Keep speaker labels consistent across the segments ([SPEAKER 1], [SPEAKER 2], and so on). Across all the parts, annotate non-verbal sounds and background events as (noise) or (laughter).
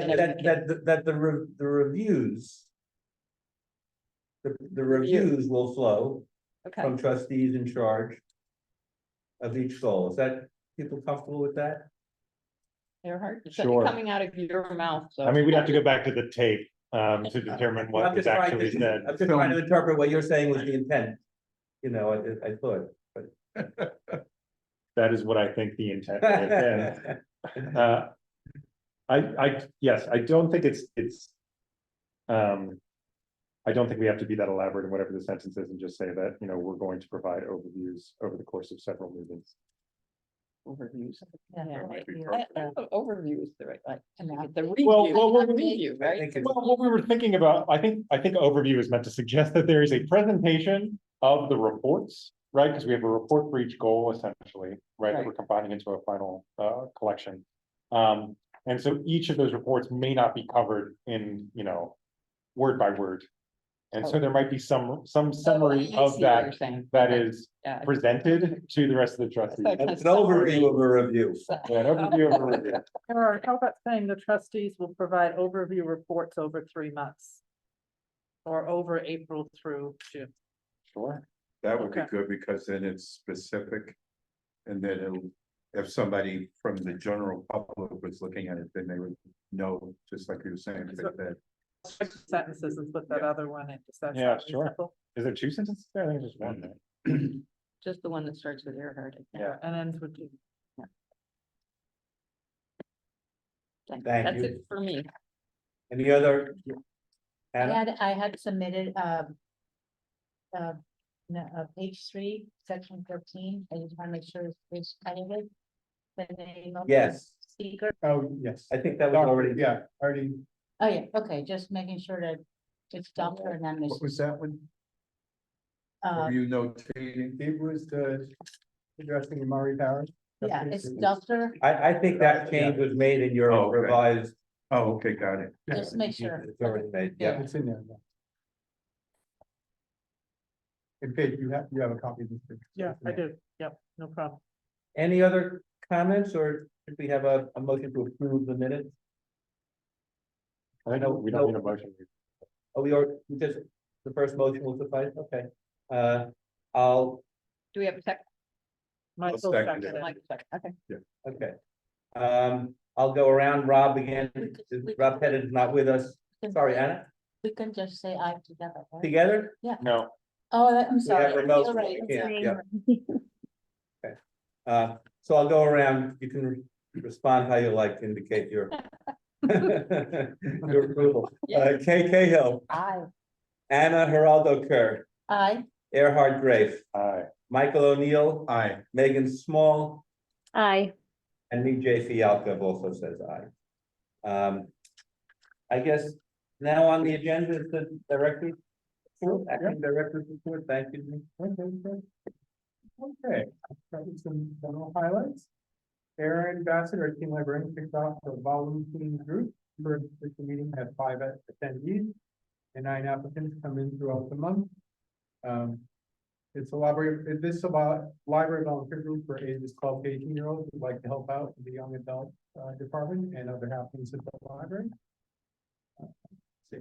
[SPEAKER 1] That, that, that, the- that the, re- the reviews. The, the reviews will flow
[SPEAKER 2] Okay,
[SPEAKER 3] Um,
[SPEAKER 1] from trustees in charge. Of each soul, is that, people comfortable with that?
[SPEAKER 2] Earhart, it's
[SPEAKER 3] Sure.
[SPEAKER 2] coming out of your mouth, so.
[SPEAKER 3] I mean, we'd have to go back to the tape um to determine
[SPEAKER 1] I'm
[SPEAKER 3] what is
[SPEAKER 1] just trying
[SPEAKER 3] actually
[SPEAKER 1] to-
[SPEAKER 3] said.
[SPEAKER 1] I'm just trying to interpret what you're saying was the intent, you know, I, I thought.
[SPEAKER 3] That is what I think the intent is. And, uh, I I, yes, I don't think it's it's. Um. I don't think we have to be that elaborate in whatever the sentence is and just say that, you know, we're going to provide overviews over the course of several meetings.
[SPEAKER 2] Overviews.
[SPEAKER 4] Yeah,
[SPEAKER 2] Yeah.
[SPEAKER 4] right.
[SPEAKER 3] might be
[SPEAKER 4] Yeah.
[SPEAKER 2] I- I don't know, Overview is the right, like, the
[SPEAKER 3] Well,
[SPEAKER 2] review,
[SPEAKER 3] well,
[SPEAKER 2] not
[SPEAKER 3] well, we-
[SPEAKER 2] review,
[SPEAKER 1] I
[SPEAKER 2] right?
[SPEAKER 1] think it's-
[SPEAKER 3] Well, what we were thinking about, I think, I think overview is meant to suggest that there is a presentation of the reports, right? Because we have a report for each goal essentially, right, that we're combining into a final uh collection. Um, and so each of those reports may not be covered in, you know, word by word. And so there might be some, some
[SPEAKER 2] Oh,
[SPEAKER 3] summary
[SPEAKER 2] I see
[SPEAKER 3] of
[SPEAKER 2] what you're
[SPEAKER 3] that,
[SPEAKER 2] saying.
[SPEAKER 3] that
[SPEAKER 2] Okay,
[SPEAKER 3] is
[SPEAKER 2] yeah.
[SPEAKER 3] presented to the rest of the trustees.
[SPEAKER 2] Okay.
[SPEAKER 1] It's an overview of a review.
[SPEAKER 3] An overview of a review.
[SPEAKER 4] Or how about saying the trustees will provide overview reports over three months? Or over April through June.
[SPEAKER 3] Sure.
[SPEAKER 5] That would be
[SPEAKER 4] Okay.
[SPEAKER 5] good because then it's specific. And then it'll, if somebody from the general public was looking at it, then they would know, just like you were saying, that- that
[SPEAKER 4] Six Sentences and put that other one in. Does that
[SPEAKER 3] Yeah,
[SPEAKER 4] sound
[SPEAKER 3] sure.
[SPEAKER 4] reasonable?
[SPEAKER 3] Is there two sentences there? I think there's just one there.
[SPEAKER 2] Just the one that starts with Earhart. I think.
[SPEAKER 3] Yeah.
[SPEAKER 4] And ends with June.
[SPEAKER 2] Thank-
[SPEAKER 1] Thank
[SPEAKER 2] That's
[SPEAKER 1] you.
[SPEAKER 2] it for me.
[SPEAKER 1] Any other?
[SPEAKER 6] I
[SPEAKER 1] Anna,
[SPEAKER 6] had, I had submitted, um. Uh, no, uh, page three, section thirteen, I just wanna make sure it's edited. The name of. the
[SPEAKER 1] Yes.
[SPEAKER 6] Speaker,
[SPEAKER 7] Oh, yes.
[SPEAKER 1] I think that was already,
[SPEAKER 7] Yeah, already,
[SPEAKER 6] oh yeah, okay, just making sure that it's Dr. Anonymous,
[SPEAKER 7] what was that one?
[SPEAKER 6] uh,
[SPEAKER 5] you notating.
[SPEAKER 7] It was the addressing Amari Powers.
[SPEAKER 6] yeah, it's Dr.,
[SPEAKER 1] I, I think that change was made in your
[SPEAKER 5] Oh, okay.
[SPEAKER 1] revised.
[SPEAKER 5] Oh, okay, got it.
[SPEAKER 6] just make sure.
[SPEAKER 1] It's already made, yeah.
[SPEAKER 7] Yeah, it's in there. yeah. And Paige, you have, you have a copy of this. too.
[SPEAKER 4] Yeah, I do. Yep, no problem.
[SPEAKER 1] Any other comments or if we have a, a motion to approve the minutes?
[SPEAKER 3] I think
[SPEAKER 1] No,
[SPEAKER 3] we don't need
[SPEAKER 1] no.
[SPEAKER 3] a motion.
[SPEAKER 1] Oh, we are, we just, the first motion will suffice, okay. Uh, I'll,
[SPEAKER 2] Do we have a second?
[SPEAKER 4] Michael
[SPEAKER 5] second
[SPEAKER 4] seconded.
[SPEAKER 2] Mike, second. Okay.
[SPEAKER 1] okay. Um, I'll go around Rob again, Rob Pettit is not with us, sorry, Anna,
[SPEAKER 6] We can just say I together, right?
[SPEAKER 1] together?
[SPEAKER 3] No,
[SPEAKER 6] Oh, I'm
[SPEAKER 1] have
[SPEAKER 6] sorry.
[SPEAKER 1] remote,
[SPEAKER 6] You're right.
[SPEAKER 1] we can't, yeah. Uh, so I'll go around, you can re- respond how you like, to indicate
[SPEAKER 6] (laughs)
[SPEAKER 1] your. Your approval, uh, Kay Cahill,
[SPEAKER 6] I,
[SPEAKER 1] Anna Geraldo Kerr,
[SPEAKER 6] I,
[SPEAKER 1] Erhard Grafe,
[SPEAKER 3] I.
[SPEAKER 1] Michael O'Neill,
[SPEAKER 5] Aye.
[SPEAKER 1] Megan Small,
[SPEAKER 8] Aye.
[SPEAKER 1] And me, J Fialka, also says aye. Um, I guess now on the agenda is the director. report, Acting director's report, thank you.
[SPEAKER 7] Okay, probably some general highlights. Aaron Bassett, our team librarian, kicked off the volunteering group. First, this meeting had five attendees and nine applicants come in throughout the month. Um, it's a library, this is about library volunteer group for ages twelve to eighteen year olds who'd like to help out in the young adult uh, department and other happenings at the library. Uh, see,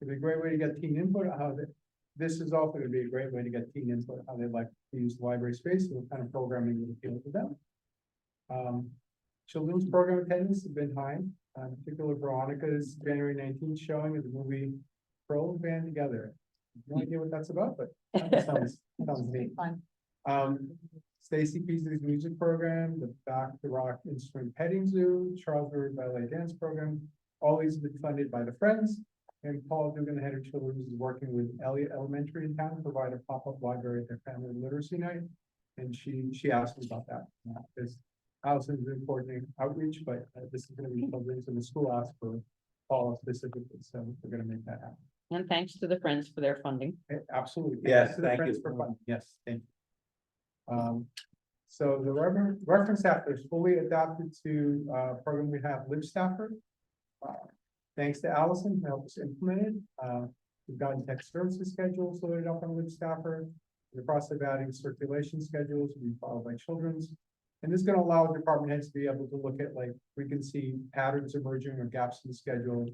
[SPEAKER 7] It'd be a great way to get teen input, on how they, this is also gonna be a great way to get teen input, on how they like to use the library space, and what kind of programming would appeal to them. Um, children's program attendance has been high, uh, in particular Veronica's January nineteenth showing of the movie Pearl Band Together. No idea what that's about, but that sounds, sounds neat.
[SPEAKER 6] fun.
[SPEAKER 7] Um, Stacy Peasley's music program, the Back to Rock Instrument Petting Zoo, Charlesbury Ballet Dance Program. All these have been funded by the Friends, and Paul Dugan, the head of children's, is working with Elliott Elementary in town, to provide a pop-up library at their family literacy night. And she, she asked me about that, because Allison's been coordinating outreach, but uh, this is gonna be children's, and the school asked for Paul specifically, so we're gonna make that happen.
[SPEAKER 2] And thanks to the friends for their funding.
[SPEAKER 7] Eh, Absolutely.
[SPEAKER 1] Yes,
[SPEAKER 7] To the
[SPEAKER 1] thank
[SPEAKER 7] Friends
[SPEAKER 1] you.
[SPEAKER 7] for Fun. Yes, thank you. Um, so the rever- reference after is fully adopted to, uh, program we have, Live Stafford. Uh, Thanks to Allison, who helped us implement it. Uh, we've gotten tech services schedules loaded up on Live Stafford. In The process of adding circulation schedules, we followed by children's. And this is gonna allow department heads to be able to look at, like, we can see patterns emerging or gaps in the schedule.